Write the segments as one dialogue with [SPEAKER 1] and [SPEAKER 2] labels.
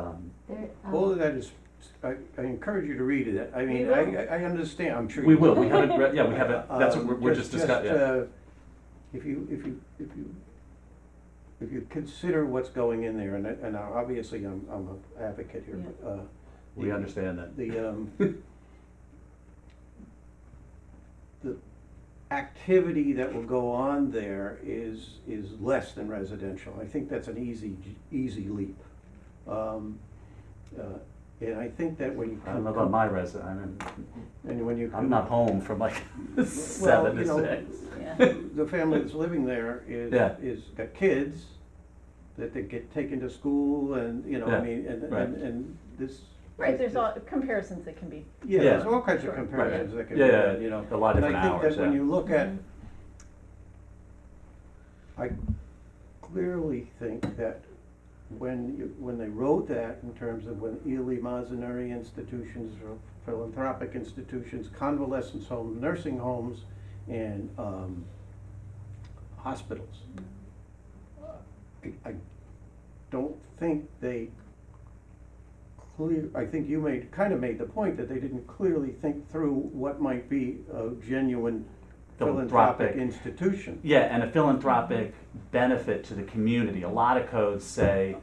[SPEAKER 1] Um,
[SPEAKER 2] um,
[SPEAKER 3] all of that is, I, I encourage you to read it, I mean,
[SPEAKER 2] We will.
[SPEAKER 3] I, I I understand, I'm sure.
[SPEAKER 1] We
[SPEAKER 3] you
[SPEAKER 1] will, we haven't read, yeah, we haven't, that's what
[SPEAKER 3] Um,
[SPEAKER 1] we're, we're just discussing, yeah.
[SPEAKER 3] uh, If you, if you, if you, if you consider what's going in there, and, I- and I- obviously I'm, I'm an advocate here, but, uh.
[SPEAKER 1] We
[SPEAKER 3] the-
[SPEAKER 1] understand that.
[SPEAKER 3] The, um, the activity that will go on there is, is less than residential. I think that's an easy, easy leap. Um, uh, and I think that when you.
[SPEAKER 1] I don't know about my resident, I'm,
[SPEAKER 3] And when you.
[SPEAKER 1] I'm not home from like seven
[SPEAKER 3] you
[SPEAKER 1] to
[SPEAKER 3] know,
[SPEAKER 1] six.
[SPEAKER 2] Yeah,
[SPEAKER 3] the family that's living there is,
[SPEAKER 1] Yeah.
[SPEAKER 3] is got kids that they get taken to school and, you know, I
[SPEAKER 1] Yeah,
[SPEAKER 3] mean, and,
[SPEAKER 1] right.
[SPEAKER 3] and, and this.
[SPEAKER 2] right, there's all, comparisons that can be,
[SPEAKER 3] Yeah, there's all kinds
[SPEAKER 2] Sure.
[SPEAKER 3] of
[SPEAKER 2] Right.
[SPEAKER 3] comparisons that can be,
[SPEAKER 1] Yeah, yeah,
[SPEAKER 3] made, you know.
[SPEAKER 1] a lot of
[SPEAKER 3] And I
[SPEAKER 1] different
[SPEAKER 3] think
[SPEAKER 1] hours,
[SPEAKER 3] that when
[SPEAKER 1] yeah.
[SPEAKER 3] you look at,
[SPEAKER 2] Mhm.
[SPEAKER 3] I clearly think that when you, when they wrote that in terms of when Ely Mazenary institutions, or philanthropic institutions, convalescent homes, nursing homes, and, um, hospitals. I- I don't think they clear, I think you made, kind of made the point that they didn't clearly think through what might be a genuine philanthropic
[SPEAKER 1] Philanthropic.
[SPEAKER 3] institution.
[SPEAKER 1] Yeah, and a philanthropic benefit to the community. A lot of codes say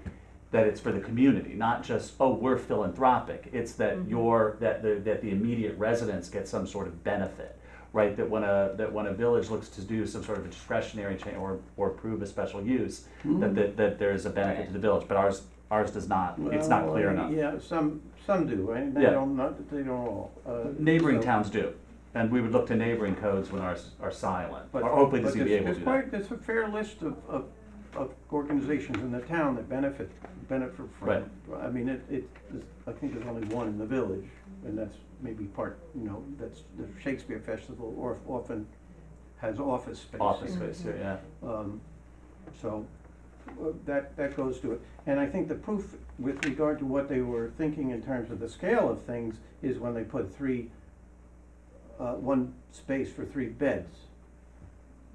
[SPEAKER 1] that it's for the community, not just, oh, we're philanthropic. It's that your, that the, that the immediate residents get some sort of benefit, right? That when a, that when a village looks to do some sort of a discretionary change or, or approve a special use, that, that, that there is a benefit to the village, but ours, ours does not. It's not
[SPEAKER 3] Well,
[SPEAKER 1] clear enough.
[SPEAKER 3] Yeah, some, some do, and they
[SPEAKER 1] Yeah.
[SPEAKER 3] don't, not, they don't all. uh,
[SPEAKER 1] Neighboring
[SPEAKER 3] so-
[SPEAKER 1] towns do, and we would look to neighboring codes when ours are silent,
[SPEAKER 3] But-
[SPEAKER 1] or hopefully the
[SPEAKER 3] but there's-
[SPEAKER 1] CBA will
[SPEAKER 3] there's
[SPEAKER 1] do that.
[SPEAKER 3] quite- There's a fair list of, of, of organizations in the town that benefit, benefit
[SPEAKER 1] Right.
[SPEAKER 3] from. I mean, it, it, there's- I think there's only one in the village, and that's maybe part, you know, that's the Shakespeare Festival, or often has office space.
[SPEAKER 1] Office space, yeah, yeah.
[SPEAKER 3] Um, So uh, that, that goes to it. And I think the proof with regard to what they were thinking in terms of the scale of things is when they put three, uh, one space for three beds.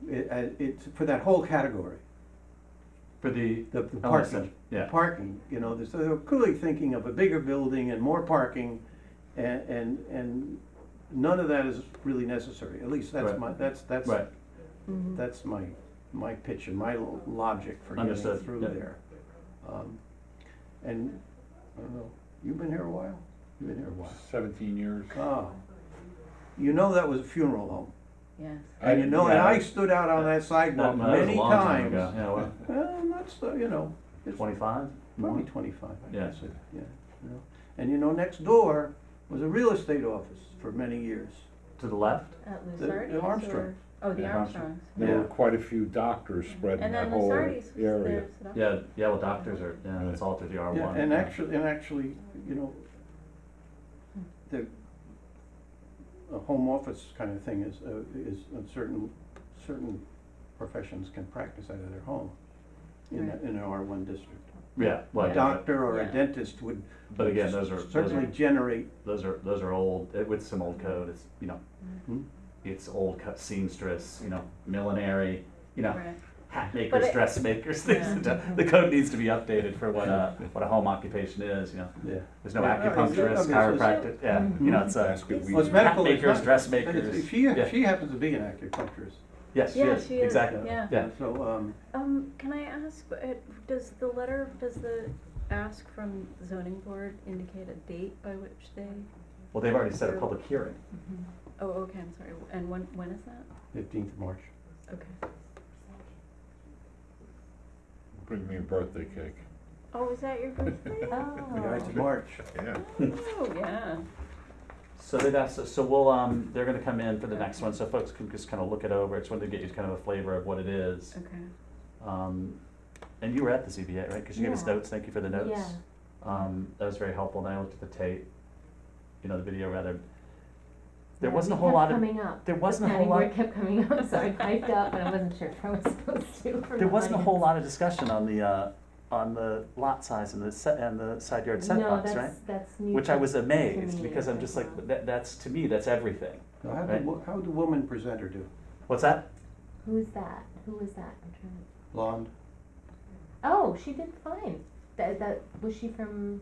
[SPEAKER 3] It, uh, it's for that whole category,
[SPEAKER 1] For the
[SPEAKER 3] the the
[SPEAKER 1] LSF,
[SPEAKER 3] parking.
[SPEAKER 1] Oh, yeah.
[SPEAKER 3] Parking, you know, so they were clearly thinking of a bigger building and more parking and, and, and none of that is really necessary. At least that's
[SPEAKER 1] Right.
[SPEAKER 3] my, that's, that's
[SPEAKER 1] Right,
[SPEAKER 3] that's my, my pitch and my lo- logic for getting
[SPEAKER 1] Understood,
[SPEAKER 3] through
[SPEAKER 1] yeah.
[SPEAKER 3] there. Um, And, I don't know, you've been here a while? You've been here a while.
[SPEAKER 4] Seventeen years.
[SPEAKER 3] Ah, you know that was a funeral home.
[SPEAKER 2] yes.
[SPEAKER 3] And you know, and
[SPEAKER 1] yeah.
[SPEAKER 3] I stood out on that sidewalk
[SPEAKER 1] That- that was a
[SPEAKER 3] many
[SPEAKER 1] long time ago.
[SPEAKER 3] times.
[SPEAKER 1] Yeah, well,
[SPEAKER 3] Well, not so, you know, it's
[SPEAKER 1] twenty-five?
[SPEAKER 3] probably twenty-five, I
[SPEAKER 1] Yeah.
[SPEAKER 3] guess, it- yeah, you know. And you know, next door was a real estate office for many years.
[SPEAKER 1] To the left?
[SPEAKER 2] At
[SPEAKER 3] the
[SPEAKER 2] Uh, Lusardi's or?
[SPEAKER 3] Armstrongs.
[SPEAKER 2] Oh, the
[SPEAKER 1] Yeah, Armstrong.
[SPEAKER 2] Armstrongs.
[SPEAKER 4] There were
[SPEAKER 3] Yeah.
[SPEAKER 4] quite a few doctors spread in
[SPEAKER 2] And
[SPEAKER 4] that
[SPEAKER 2] then
[SPEAKER 4] whole
[SPEAKER 2] Lusardi's was
[SPEAKER 4] area.
[SPEAKER 2] there. so that-
[SPEAKER 1] Yeah, yeah, well, doctors are, yeah, it's all through the R
[SPEAKER 3] Yeah,
[SPEAKER 1] one.
[SPEAKER 3] and actually, and actually, you know, the, a home office kind of thing is, uh, is, uh, certain, certain professions can practice out of their home in, a-
[SPEAKER 2] Right.
[SPEAKER 3] in an R one district.
[SPEAKER 1] Yeah, well,
[SPEAKER 3] A
[SPEAKER 1] yeah,
[SPEAKER 3] doctor or a
[SPEAKER 2] Yeah.
[SPEAKER 3] dentist would.
[SPEAKER 1] but again, those are, those
[SPEAKER 3] Certainly
[SPEAKER 1] are,
[SPEAKER 3] generate,
[SPEAKER 1] those are, those are old, it- with some old code, it's, you know,
[SPEAKER 3] Hmm?
[SPEAKER 1] it's old cut seamstress, you know, millinery, you know,
[SPEAKER 2] Right.
[SPEAKER 1] hat
[SPEAKER 2] But
[SPEAKER 1] makers,
[SPEAKER 2] it-
[SPEAKER 1] dressmakers, things,
[SPEAKER 2] Yeah.
[SPEAKER 1] like that. the code needs to be updated for what a, what a home occupation is, you know.
[SPEAKER 3] yeah.
[SPEAKER 1] There's no
[SPEAKER 3] Yeah, I mean,
[SPEAKER 1] acupuncturist,
[SPEAKER 3] obviously.
[SPEAKER 1] chiropractic, yeah, you know, it's a,
[SPEAKER 4] Basket
[SPEAKER 3] Well,
[SPEAKER 4] weaving.
[SPEAKER 3] it's medical, it's
[SPEAKER 1] Hatmakers,
[SPEAKER 3] not-
[SPEAKER 1] dressmakers,
[SPEAKER 3] but it's- She,
[SPEAKER 1] yeah.
[SPEAKER 3] she happens to be an acupuncturist.
[SPEAKER 1] yes,
[SPEAKER 2] Yeah,
[SPEAKER 1] yes,
[SPEAKER 2] she is,
[SPEAKER 1] exactly,
[SPEAKER 2] yeah.
[SPEAKER 1] yeah.
[SPEAKER 3] So, um,
[SPEAKER 2] Um, can I ask, uh, does the letter, does the ask from zoning board indicate a date by which they?
[SPEAKER 1] Well, they've already set a public hearing.
[SPEAKER 2] Oh, okay, I'm sorry. And when, when is that?
[SPEAKER 3] fifteenth of March.
[SPEAKER 2] Okay.
[SPEAKER 4] Bring me a birthday cake.
[SPEAKER 2] Oh, is that your birthday?
[SPEAKER 3] Yeah, it's
[SPEAKER 2] Oh,
[SPEAKER 3] March.
[SPEAKER 4] Yeah.
[SPEAKER 2] oh, yeah.
[SPEAKER 1] So they've asked, us- so we'll, um, they're gonna come in for the next one, so folks can just kind of look it over, it's wanted to get you kind of a flavor of what it is.
[SPEAKER 2] Okay.
[SPEAKER 1] Um, and you were at the ZBA, right, because you gave us
[SPEAKER 5] Yeah.
[SPEAKER 1] notes, thank you for the notes.
[SPEAKER 5] Yeah.
[SPEAKER 1] Um, that was very helpful, and I looked at the tape, you know, the video rather, there
[SPEAKER 5] Yeah,
[SPEAKER 1] wasn't a
[SPEAKER 5] it
[SPEAKER 1] whole
[SPEAKER 5] kept
[SPEAKER 1] lot of,
[SPEAKER 5] Coming up.
[SPEAKER 1] there wasn't a
[SPEAKER 5] Planning
[SPEAKER 1] whole lot,
[SPEAKER 5] board kept coming up, so I piped up, and I wasn't sure if I was supposed to. or
[SPEAKER 1] there
[SPEAKER 5] not.
[SPEAKER 1] wasn't a whole lot of discussion on the, uh, on the lot size and the set, and the side yard
[SPEAKER 5] No,
[SPEAKER 1] setbacks, right?
[SPEAKER 5] that's, that's new.
[SPEAKER 1] Which I
[SPEAKER 5] to-
[SPEAKER 1] was amazed,
[SPEAKER 5] me
[SPEAKER 1] because I'm
[SPEAKER 5] as
[SPEAKER 1] just
[SPEAKER 5] well.
[SPEAKER 1] like, that, that's, to me, that's everything.
[SPEAKER 3] Now, How did,
[SPEAKER 1] Right.
[SPEAKER 3] wo- how did the woman presenter do?
[SPEAKER 1] What's that?
[SPEAKER 5] Who's that? Who was that? I'm trying to.
[SPEAKER 3] Blonde?
[SPEAKER 5] Oh, she did fine. That, that, was she from